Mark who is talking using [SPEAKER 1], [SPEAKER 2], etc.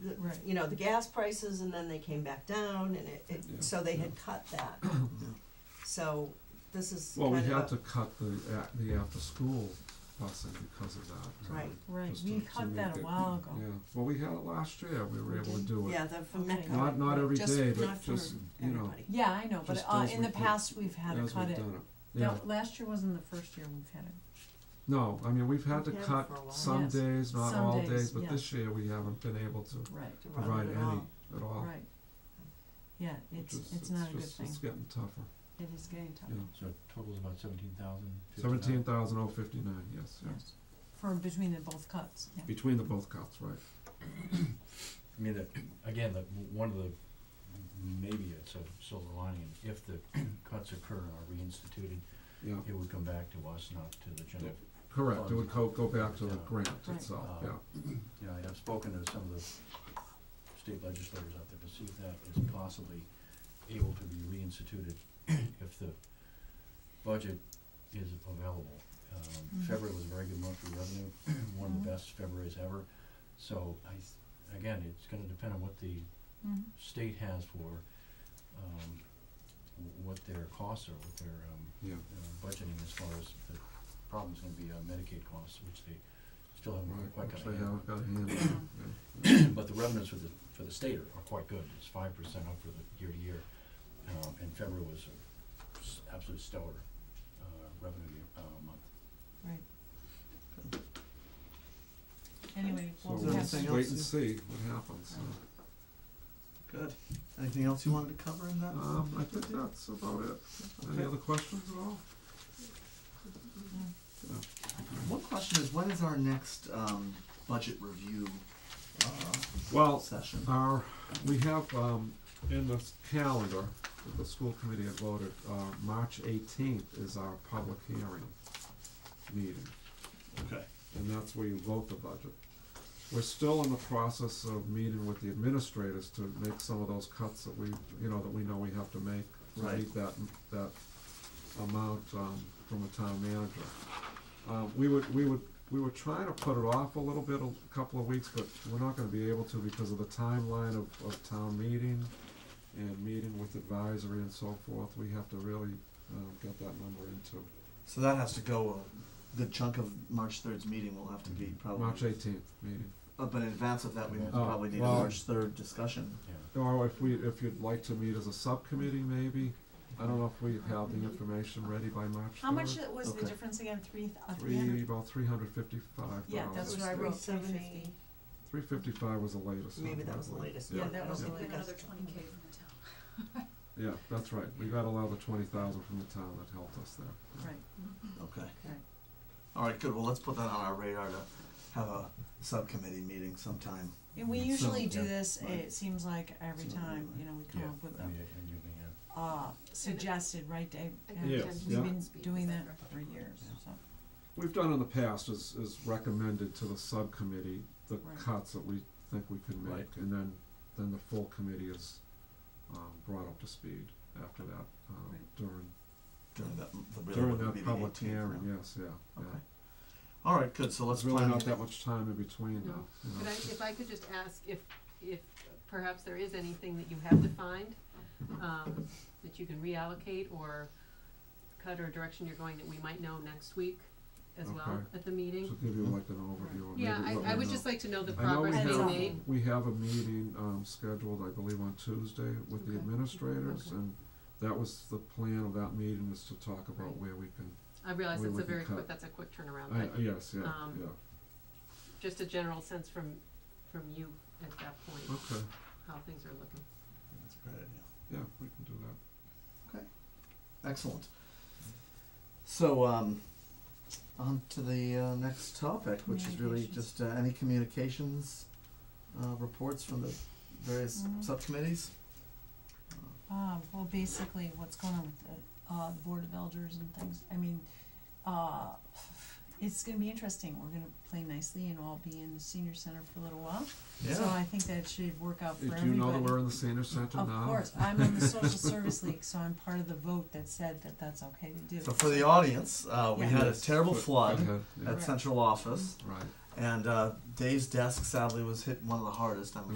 [SPEAKER 1] the,
[SPEAKER 2] Right.
[SPEAKER 1] you know, the gas prices and then they came back down and it,
[SPEAKER 3] Yeah.
[SPEAKER 1] it, so they had cut that. So this is
[SPEAKER 3] Well,
[SPEAKER 1] kind
[SPEAKER 3] we
[SPEAKER 1] of a.
[SPEAKER 3] had to cut the, a- the after-school busing because of that. uh,
[SPEAKER 1] Right.
[SPEAKER 2] Right,
[SPEAKER 3] just
[SPEAKER 2] we
[SPEAKER 3] to- to
[SPEAKER 2] cut
[SPEAKER 3] make
[SPEAKER 2] that a
[SPEAKER 3] it-
[SPEAKER 2] while ago.
[SPEAKER 3] Yeah, well, we had it last year, we
[SPEAKER 2] We
[SPEAKER 3] were able to
[SPEAKER 2] did?
[SPEAKER 3] do it.
[SPEAKER 1] Yeah, the from
[SPEAKER 2] Okay.
[SPEAKER 1] Metco.
[SPEAKER 3] Not, not every
[SPEAKER 1] Just
[SPEAKER 3] day, but
[SPEAKER 1] not for
[SPEAKER 3] just, you know,
[SPEAKER 1] everybody.
[SPEAKER 2] Yeah, I know, but
[SPEAKER 3] Just
[SPEAKER 2] uh,
[SPEAKER 3] as
[SPEAKER 2] in the
[SPEAKER 3] we-
[SPEAKER 2] past, we've had to
[SPEAKER 3] as
[SPEAKER 2] cut
[SPEAKER 3] we've
[SPEAKER 2] it.
[SPEAKER 3] done it. Yeah,
[SPEAKER 2] No, last year wasn't the first year we've had it.
[SPEAKER 3] no, I mean, we've had to
[SPEAKER 1] We've had it
[SPEAKER 3] cut
[SPEAKER 1] for a while.
[SPEAKER 3] some
[SPEAKER 2] Yes.
[SPEAKER 3] days, not
[SPEAKER 2] Some
[SPEAKER 3] all
[SPEAKER 2] days,
[SPEAKER 3] days, but
[SPEAKER 2] yeah.
[SPEAKER 3] this year we haven't been able to
[SPEAKER 2] Right,
[SPEAKER 1] To run
[SPEAKER 3] provide
[SPEAKER 1] it
[SPEAKER 3] any
[SPEAKER 1] at all.
[SPEAKER 3] at all.
[SPEAKER 2] right. Yeah,
[SPEAKER 3] which
[SPEAKER 2] it's,
[SPEAKER 3] is-
[SPEAKER 2] it's not a good
[SPEAKER 3] Oh. just-
[SPEAKER 2] thing.
[SPEAKER 3] It's getting tougher,
[SPEAKER 2] It is getting tough,
[SPEAKER 3] yeah.
[SPEAKER 4] So total's about seventeen thousand.
[SPEAKER 3] Seventeen thousand oh fifty-nine, yes, yeah.
[SPEAKER 2] yes. From between the both cuts, yeah.
[SPEAKER 3] Between the both cuts, right.
[SPEAKER 4] I mean, the, again, the, one of the, maybe it's a silver lining, and if the cuts occur and are reinstituted,
[SPEAKER 3] Yeah,
[SPEAKER 4] it would come back to us, not to the general.
[SPEAKER 3] correct, it would go, go back to the
[SPEAKER 4] Yeah.
[SPEAKER 3] grant
[SPEAKER 2] Right.
[SPEAKER 3] itself,
[SPEAKER 4] Uh,
[SPEAKER 3] yeah.
[SPEAKER 4] You know, I have spoken to some of the state legislators out there to see if that is possibly able to be reinstituted if the budget is available. Um,
[SPEAKER 2] Mhm.
[SPEAKER 4] February was a very good month for revenue, one of
[SPEAKER 2] Mhm.
[SPEAKER 4] the best Februarys ever. So I, s- again, it's gonna depend on what the
[SPEAKER 2] Mhm.
[SPEAKER 4] state has for, um, w- what their costs are, what their, um,
[SPEAKER 3] Yeah,
[SPEAKER 4] uh, budgeting as far as the problem's gonna be on Medicaid costs, which they still haven't
[SPEAKER 3] right,
[SPEAKER 4] quite got
[SPEAKER 3] which
[SPEAKER 4] a
[SPEAKER 3] they
[SPEAKER 4] handle on.
[SPEAKER 3] haven't got a handle on, yeah.
[SPEAKER 4] But the revenues for the, for the state are, are quite good, it's five percent up for the year to year, um, and February was a s- absolute stellar, uh, revenue, year- uh, month.
[SPEAKER 2] Anyway,
[SPEAKER 3] So
[SPEAKER 2] we'll
[SPEAKER 3] we'll
[SPEAKER 2] have
[SPEAKER 3] just
[SPEAKER 2] to.
[SPEAKER 5] anything
[SPEAKER 3] wait
[SPEAKER 5] else
[SPEAKER 3] and
[SPEAKER 5] you-
[SPEAKER 3] see what happens, so.
[SPEAKER 5] Good. Anything else you wanted to cover in that?
[SPEAKER 3] Um, I think that's about it. Any
[SPEAKER 5] Okay.
[SPEAKER 3] other questions at all?
[SPEAKER 2] Mm.
[SPEAKER 5] One question is, when is our next um, budget review uh,
[SPEAKER 3] Well,
[SPEAKER 5] session?
[SPEAKER 3] our, we have, um, in the s- calendar, that the school committee had voted, uh, March eighteenth is our public hearing meeting,
[SPEAKER 5] Okay.
[SPEAKER 3] and that's where you vote the budget. We're still in the process of meeting with the administrators to make some of those cuts that we, you know, that we know we have to make to
[SPEAKER 5] Right.
[SPEAKER 3] meet that, that amount, um, from the town manager. Um, we would, we would, we were trying to put it off a little bit, a couple of weeks, but we're not gonna be able to because of the timeline of, of town meeting and meeting with advisory and so forth, we have to really, um, get that number into
[SPEAKER 5] So that has to go. A good chunk of March 3rd's meeting will have to be probably.
[SPEAKER 3] March eighteenth meeting.
[SPEAKER 5] Uh, but in advance of that, we
[SPEAKER 4] Oh,
[SPEAKER 5] probably need
[SPEAKER 3] well-
[SPEAKER 5] a March 3rd discussion.
[SPEAKER 4] Yeah.
[SPEAKER 3] Or if we, if you'd like to meet as a subcommittee maybe, I don't know if we have the information ready by March
[SPEAKER 2] How much
[SPEAKER 3] third.
[SPEAKER 2] was the
[SPEAKER 5] Okay.
[SPEAKER 2] difference again, three, th- uh, three
[SPEAKER 3] Three,
[SPEAKER 2] hundred?
[SPEAKER 3] about three hundred fifty-five dollars.
[SPEAKER 2] Yeah, that's what I
[SPEAKER 1] Three
[SPEAKER 2] wrote, three
[SPEAKER 1] seventy.
[SPEAKER 2] fifty.
[SPEAKER 3] Three fifty-five was the latest.
[SPEAKER 1] Maybe
[SPEAKER 3] number,
[SPEAKER 1] that
[SPEAKER 3] I
[SPEAKER 1] was the
[SPEAKER 3] believe.
[SPEAKER 1] latest
[SPEAKER 3] Yeah,
[SPEAKER 1] one.
[SPEAKER 2] that was the latest.
[SPEAKER 6] another twenty K from the town.
[SPEAKER 3] Yeah, that's right, we got a lot of the twenty thousand from the town that helped us there.
[SPEAKER 2] Right,
[SPEAKER 5] Okay.
[SPEAKER 2] right.
[SPEAKER 5] All right, good. Well, let's put that on our radar to have a subcommittee meeting sometime.
[SPEAKER 2] And we
[SPEAKER 5] So,
[SPEAKER 2] usually do
[SPEAKER 4] yeah,
[SPEAKER 2] this,
[SPEAKER 5] right.
[SPEAKER 2] it seems like every
[SPEAKER 5] Something
[SPEAKER 2] time,
[SPEAKER 5] like-
[SPEAKER 2] you know, we
[SPEAKER 4] Yeah,
[SPEAKER 2] come up with
[SPEAKER 4] I
[SPEAKER 2] a,
[SPEAKER 4] mean, and you may have-
[SPEAKER 2] uh, suggested, right, Dave?
[SPEAKER 6] I
[SPEAKER 2] Yeah.
[SPEAKER 6] think
[SPEAKER 3] Yes,
[SPEAKER 6] Jen's
[SPEAKER 3] yeah.
[SPEAKER 2] We've been
[SPEAKER 6] speak,
[SPEAKER 2] doing
[SPEAKER 6] is
[SPEAKER 2] that
[SPEAKER 6] that correct?
[SPEAKER 2] for years, so,
[SPEAKER 3] We've done in the past is, is recommended to the subcommittee the
[SPEAKER 2] Right.
[SPEAKER 3] cuts that we think we can make,
[SPEAKER 4] Right.
[SPEAKER 3] and then, then the full committee is, um, brought up to speed after that, um,
[SPEAKER 2] Right.
[SPEAKER 3] during,
[SPEAKER 5] During that, the really
[SPEAKER 3] during
[SPEAKER 5] would be
[SPEAKER 3] that
[SPEAKER 5] the
[SPEAKER 3] public
[SPEAKER 5] 18th
[SPEAKER 3] hearing,
[SPEAKER 5] now.
[SPEAKER 3] yes, yeah, yeah.
[SPEAKER 5] Okay. All right, good. So let's
[SPEAKER 3] There's really
[SPEAKER 5] plan
[SPEAKER 3] not that much time in between
[SPEAKER 6] No.
[SPEAKER 3] now, you know,
[SPEAKER 6] Could I,
[SPEAKER 3] it's just-
[SPEAKER 6] if I could just ask if, if perhaps there is anything that you have defined, um, that you can reallocate or cut or direction you're going that we might know next week as well
[SPEAKER 3] Okay.
[SPEAKER 6] at the meeting?
[SPEAKER 3] To give you like an overview of maybe
[SPEAKER 6] Yeah,
[SPEAKER 3] what we know.
[SPEAKER 6] I, I would just like to know the
[SPEAKER 3] I know we
[SPEAKER 6] progress
[SPEAKER 2] Progress
[SPEAKER 6] being
[SPEAKER 2] being
[SPEAKER 3] have,
[SPEAKER 6] made.
[SPEAKER 3] we have a meeting, um, scheduled, I believe, on Tuesday with the
[SPEAKER 6] Okay.
[SPEAKER 3] administrators,
[SPEAKER 6] Okay.
[SPEAKER 3] and that was the plan of that meeting, was to talk about
[SPEAKER 6] Right.
[SPEAKER 3] where we can,
[SPEAKER 6] I realize
[SPEAKER 3] we
[SPEAKER 6] it's a
[SPEAKER 3] would
[SPEAKER 6] very
[SPEAKER 3] cut.
[SPEAKER 6] quick, that's a quick turnaround,
[SPEAKER 3] I,
[SPEAKER 6] but
[SPEAKER 3] yes, yeah,
[SPEAKER 6] um,
[SPEAKER 3] yeah,
[SPEAKER 6] just a general sense from, from you at that point,
[SPEAKER 3] okay,
[SPEAKER 6] how things are looking.
[SPEAKER 5] That's a great idea.
[SPEAKER 3] yeah, we can do that.
[SPEAKER 5] Excellent. So, um, on to the uh, next topic, which is really
[SPEAKER 2] Communications.
[SPEAKER 5] just uh, any communications uh, reports from the various
[SPEAKER 2] Mhm.
[SPEAKER 5] subcommittees.
[SPEAKER 2] uh, well, basically, what's going on with the, uh, the Board of Elders and things, I mean, uh, it's gonna be interesting, we're gonna play nicely and all be in the senior center for a little while, so I think that should work out for
[SPEAKER 3] Uh,
[SPEAKER 2] everybody.
[SPEAKER 3] Do you know that we're in the senior center now?
[SPEAKER 2] Of course, I'm in the social service league, so I'm part of the vote that said that that's okay to do.
[SPEAKER 5] So for the audience, uh, we
[SPEAKER 2] Yeah.
[SPEAKER 5] had a
[SPEAKER 3] Yes,
[SPEAKER 5] terrible
[SPEAKER 3] go- go
[SPEAKER 5] flood
[SPEAKER 3] ahead, yeah,
[SPEAKER 5] at
[SPEAKER 2] Correct. Mm-hmm.
[SPEAKER 5] central office,
[SPEAKER 3] right.
[SPEAKER 5] and uh, Dave's desk sadly was hit one of the hardest. I'm